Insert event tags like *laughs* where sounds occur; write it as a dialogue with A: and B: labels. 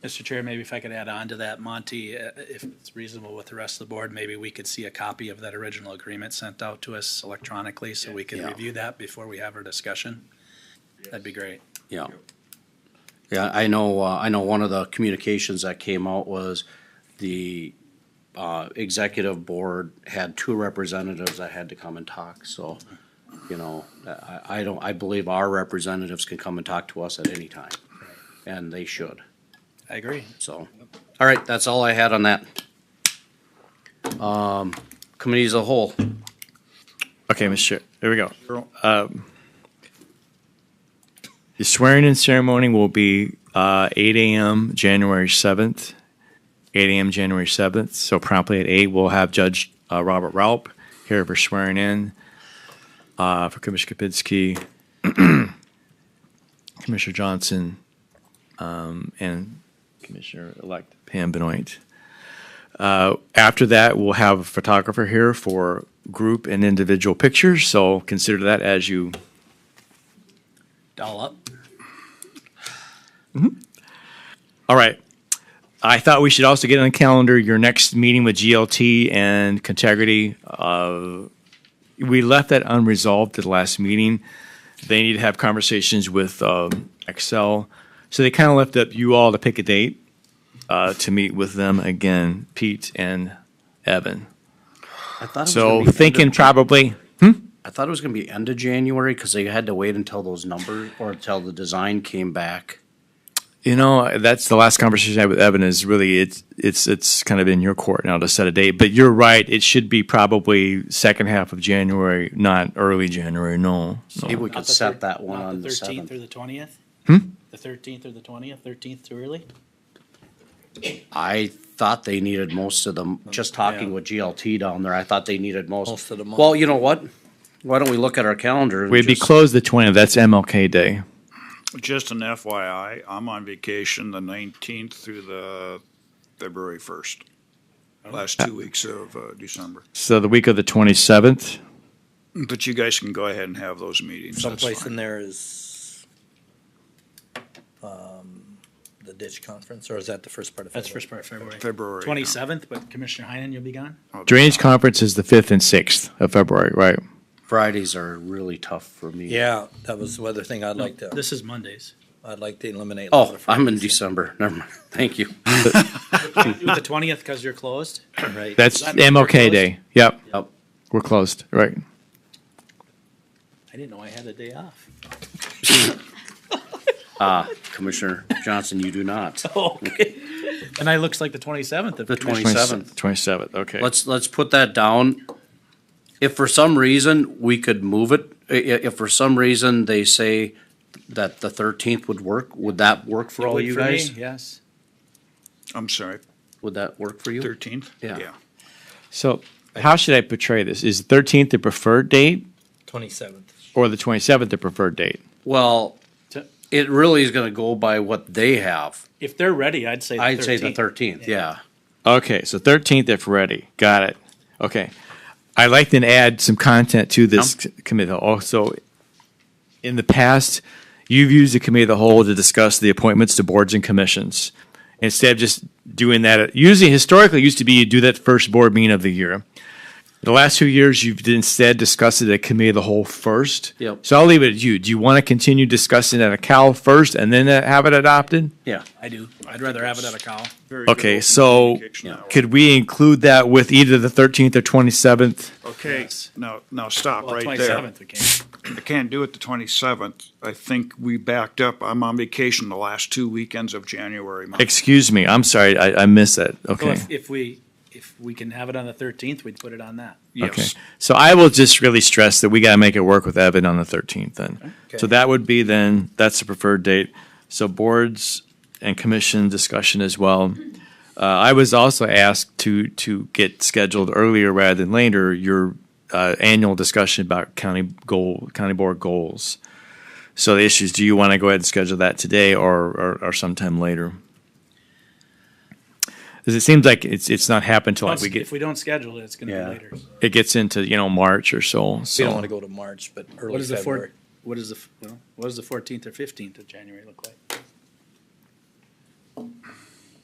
A: Mr. Chair, maybe if I could add on to that, Monty, uh, if it's reasonable with the rest of the board, maybe we could see a copy of that original agreement sent out to us electronically so we can
B: Yeah.
A: review that before we have our discussion. That'd be great.
B: Yeah. Yeah, I know, uh, I know one of the communications that came out was the, uh, executive board had two representatives that had to come and talk, so, you know, I, I don't, I believe our representatives can come and talk to us at any time, and they should,
A: I agree.
B: so. All right, that's all I had on that. Um, committee as a whole,
C: Okay, Mr. Chair, there we go. Um, The swearing-in ceremony will be uh, eight AM, January seventh. Eight AM, January seventh, so promptly at eight, we'll have Judge uh, Robert Raup here for swearing in uh, for Commissioner Kapinski, *clears throat* Commissioner Johnson, um, and Commissioner-elect Pam Benoit. After that, we'll have a photographer here for group and individual pictures, so consider that as you,
A: All up.
C: all right. I thought we should also get on the calendar your next meeting with GLT and Contagrity. Uh, We left that unresolved at the last meeting. They need to have conversations with um, Excel. So they kind of left up you all to pick a date uh, to meet with them again, Pete and Evan.
B: I thought it was gonna
C: So
B: be end of
C: thinking probably
B: I thought it was gonna be end of January, cause they had to wait until those numbers, or until the design came back.
C: You know, that's the last conversation I had with Evan. Is really it's it's it's kind of in your court now to set a date. But you're right; it should be probably second half of January, not early January. No,
B: Maybe
C: no.
B: we could set that one
A: Not
B: on the
A: Thirteenth or
B: seventh.
A: the twentieth? The thirteenth or the twentieth, thirteenth too early?
B: I thought they needed most of them, just talking with GLT down there, I thought they needed most.
D: Oh, Most of the month.
B: Well, you know what? Why don't we look at our calendar? and
C: we'd be
B: just-
C: closed the twentieth. That's MLK Day.
E: Just an FYI, I'm on vacation the nineteenth through the February first. Last two weeks of uh, December.
C: So the week of the twenty seventh.
E: But you guys can go ahead and have those meetings. That's
D: Someplace in
E: fine.
D: there is um, the ditch conference, or is that the first part of?
A: That's
D: February?
A: first part of February.
E: February.
A: Twenty-seventh, but Commissioner Heinen, you'll be gone?
C: Drainage conference is the fifth and sixth of February, right?
B: Fridays are really tough for me.
D: Yeah, that was the other thing I'd like to,
A: This is Mondays.
D: I'd like to eliminate. a lot
B: Oh,
D: of
B: I'm in
D: Fridays.
B: December, never mind, *laughs* thank you.
A: Do it The twentieth because you're closed? Right.
C: That's
A: Does that mean we're
C: MLK
A: closed?
C: Day. Yep.
B: Yep.
C: we're closed. Right.
A: I didn't know I had a day off.
B: Commissioner Johnson, you do
D: *laughs*
B: not.
A: Okay. And I looks like the twenty-seventh of.
B: The
A: Commissioner-
B: 27th.
C: Twenty seventh. Okay.
B: Let's, let's put that down. If for some reason we could move it, i- i- if for some reason they say that the thirteenth would work, would that work for all
A: Would
B: you
A: for me,
B: guys?
A: Yes.
E: I'm sorry,
B: Would that work for you?
E: thirteenth?
B: Yeah.
C: So how should I portray this? Is thirteenth the preferred date
D: Twenty-seventh.
C: or the twenty seventh the preferred date?
B: Well,
A: To-
B: it really is gonna go by what they have.
A: If they're ready, I'd say. the
B: I'd say the
A: 13th.
B: thirteenth, yeah.
C: Okay, so thirteenth if ready. Got it. Okay. I'd like to add some content to this committee. Also, in the past, you've used the committee of the whole to discuss the appointments to boards and commissions. Instead of just doing that, usually historically it used to be you do that first board meeting of the year. The last two years, you've instead discussed it at committee of the whole first.
B: Yep.
C: So I'll leave it at you. Do you want to continue discussing it at a Cal first and then uh, have it adopted?
B: Yeah.
A: I do. I'd rather have it at a cow.
E: Very good
C: Okay,
E: open
C: so-
E: communication
B: Yeah.
E: that way.
C: Could we include that with either the thirteenth or twenty-seventh?
E: Okay, now, now stop
A: Well,
E: right there.
A: twenty-seventh we can.
E: I can't do it the twenty-seventh. I think we backed up. I'm on vacation the last two weekends of January. month.
C: Excuse me, I'm sorry, I, I missed that,
A: So
C: okay.
A: if, if we, if we can have it on the thirteenth, we'd put it on that.
C: Okay,
E: Yes,
C: so I will just really stress that we gotta make it work with Evan on the thirteenth then. So
D: Okay.
C: that would be then, that's the preferred date. So boards and commission discussion as well. Uh, I was also asked to, to get scheduled earlier rather than later, your, uh, annual discussion about county goal, county board goals. So the issues, do you wanna go ahead and schedule that today or, or, or sometime later? Cause it seems like it's, it's not happened till like we get
A: If we don't schedule it, it's gonna
B: Yeah.
A: be later.
C: it gets into you know March or so.
D: We
C: So
D: don't want to go to March, but
A: What
D: early
A: is the
D: February.
A: four, what is the, f- well, what does the fourteenth or fifteenth of January look like?